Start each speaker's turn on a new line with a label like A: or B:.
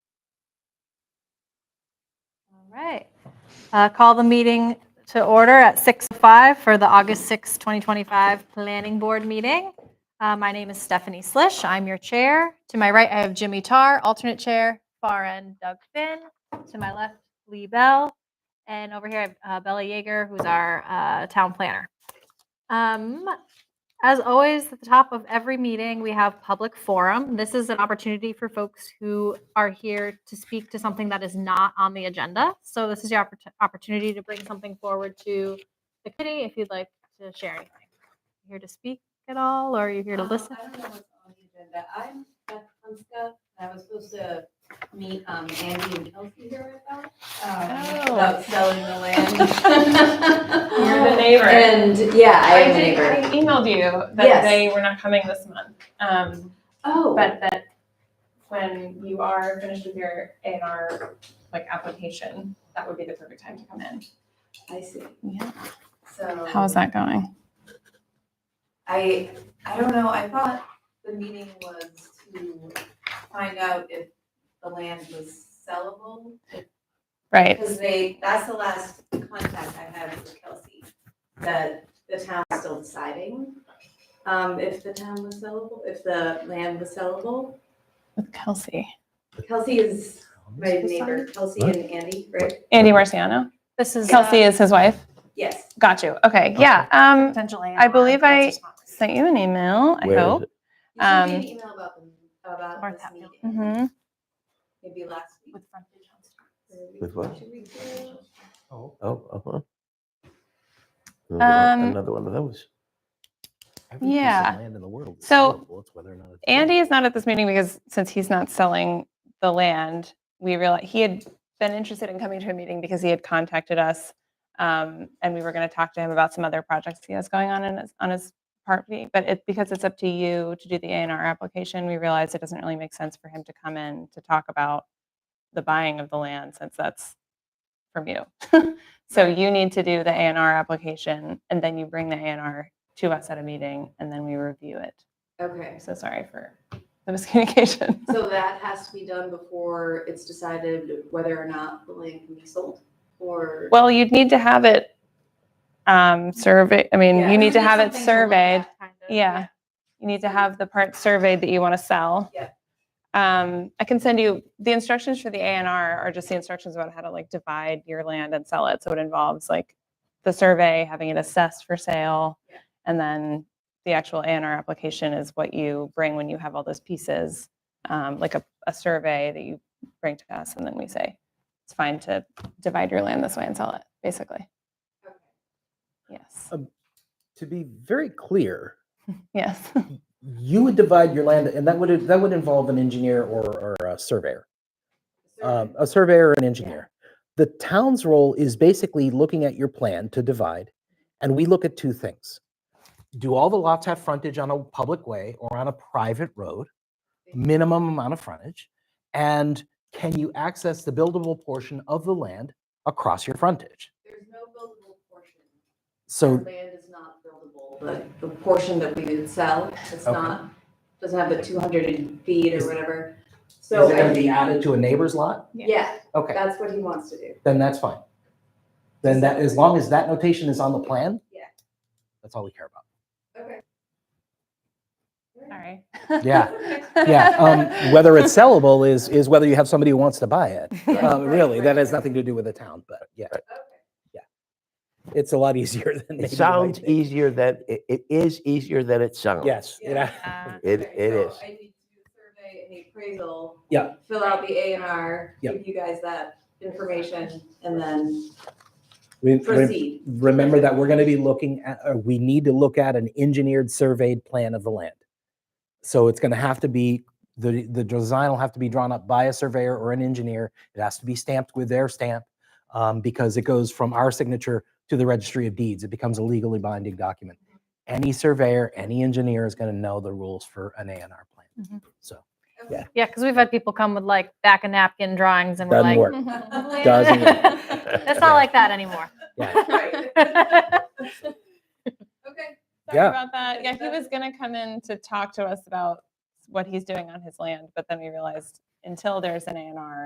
A: All right. Uh, Call the meeting to order at 6:05 for the August 6, 2025 Planning Board meeting. Uh, My name is Stephanie Slish. I'm your chair. To my right, I have Jimmy Tarr, alternate chair, far end Doug Finn. To my left, Lee Bell. And over here, I have uh, Bella Yeager, who's our uh, town planner. Um, As always, at the top of every meeting, we have public forum. This is an opportunity for folks who are here to speak to something that is not on the agenda. So this is your oppor- opportunity to bring something forward to the committee if you'd like to share anything. Here to speak at all, or you're here to
B: Um,
A: listen?
B: I
C: Uh,
B: don't know what's on the agenda. I'm Beth Hunska. I was supposed to meet um, Andy and Kelsey here right now.
A: Oh.
B: About selling the land.
D: You're the neighbor.
B: Oh. And, yeah, I am a
D: did-
B: neighbor.
D: I emailed you that
B: Yes.
D: they were not coming this month, um,
B: Oh.
D: but that when you are finished with your A and R like application, that would be the perfect time to come in.
B: I see.
D: Yeah.
B: So.
D: that going?
B: I, I don't know. I thought the meeting was to find out if the land was sellable.
D: Right.
B: Because they, that's the last contact I had with Kelsey, that the town's still deciding um, if the town was sellable, if the land was sellable.
D: With Kelsey.
B: Kelsey is my neighbor, Kelsey and Andy, right?
C: Andy Marciano.
A: This is
B: Yeah.
C: Kelsey is his wife.
B: Yes.
C: Got you. Okay. Yeah. Um,
A: potentially.
C: I believe I sent you an email. I
E: Where is
C: hope.
E: it?
B: You sent me
C: Um,
B: an email about them, about
A: Martha
B: this
A: Hatfield.
B: meeting,
D: Mm-hmm.
C: hmm
B: maybe last week.
A: With frontage on street.
B: or a week-
E: With what?
B: two weeks ago.
E: Oh, uh-huh. Another one-
C: Um,
E: Another one of those.
F: Every piece of
C: Yeah.
F: land in the world is
C: So,
F: sellable. It's whether or not it's
C: Andy is not at this meeting because since he's not selling the land, we realized he had been interested in coming to a meeting because he had contacted us, um, and we were going to talk to him about some other projects he has going on in his, on his property. But it, because it's up to you to do the A and R application, we realized it doesn't really make sense for him to come in to talk about the buying of the land since that's from you. so you need to do the A and R application, and then you bring the A and R to us at a meeting, and then we review it.
B: Okay,
C: I'm so sorry for the miscommunication.
B: so that has to be done before it's decided whether or not the land can be sold or?
C: Well, you'd need to have it um, surveyed. I mean,
B: Yeah.
C: you need to have
A: Something
C: it
A: to look
C: surveyed.
A: at, kind of,
C: Yeah. You need to have the part surveyed that you want to sell.
B: Yep.
C: Um, I can send you, the instructions for the A and R are just the instructions about how to like divide your land and sell it. So it involves like the survey, having it assessed for sale.
B: Yeah.
C: And then the actual A and R application is what you bring when you have all those pieces. Um, like a, a survey that you bring to us and then we say, it's fine to divide your land this way and sell it, basically.
B: Okay.
C: Yes,
F: to be very clear,
C: yes.
F: you would divide your land, and that would that would involve an engineer or, or a surveyor, um, a surveyor or an engineer. The town's role is basically looking at your plan to divide, and we look at two things: do all the lots have frontage on a public way or on a private road? Minimum amount of frontage, and can you access the buildable portion of the land across your frontage?
B: There's no buildable portion.
F: um, So
B: The Land is not buildable, but the portion that we would sell, it's
F: Okay.
B: not, doesn't have the two hundred feet or
F: Is-
B: whatever.
F: Is
B: So,
F: it gonna
B: I-
F: be added to a neighbor's lot?
B: yeah,
F: Okay,
B: that's what he wants to do.
F: then that's fine. Then that, as long as that notation is on the plan?
B: Yeah.
F: That's all we care about.
B: Okay.
C: Sorry.
F: Yeah, yeah. Um, whether it's sellable is, is whether you have somebody who wants to buy it.
B: Yeah.
F: Um, really, that has nothing to do with the town, but yeah, it's a lot easier than. maybe you
E: It
F: might
E: sounds
F: think.
E: easier than, it, it is easier than it sounds.
F: Yes, it
B: Yeah.
F: a-
C: Uh,
E: It,
B: Okay,
E: it
B: so
E: is.
B: I need to do a survey and the appraisal.
F: Yeah.
B: Fill out the A and R,
F: Yeah.
B: give you guys that information, and then
F: re- re-
B: proceed.
F: Remember that we're gonna be looking at, or we need to look at an engineered surveyed plan of the land. So it's gonna have to be, the, the design will have to be drawn up by a surveyor or an engineer. It has to be stamped with their stamp, um, because it goes from our signature to the registry of deeds. It becomes a legally binding document. Any surveyor, any engineer is gonna know the rules for an A and R plan.
A: Mhm.
F: So,
A: Yeah, because we've had people come with like back and napkin drawings and we're
F: Doesn't
A: like.
F: work.
B: Mm-hmm.
A: "Mm,
F: Doesn't
A: It's not like that anymore.
F: yeah,
B: Right. Okay.
C: Sorry
F: Yeah.
C: about that. Yeah, he was gonna come in to talk to us about what he's doing on his land, but then we realized until there's an A and R,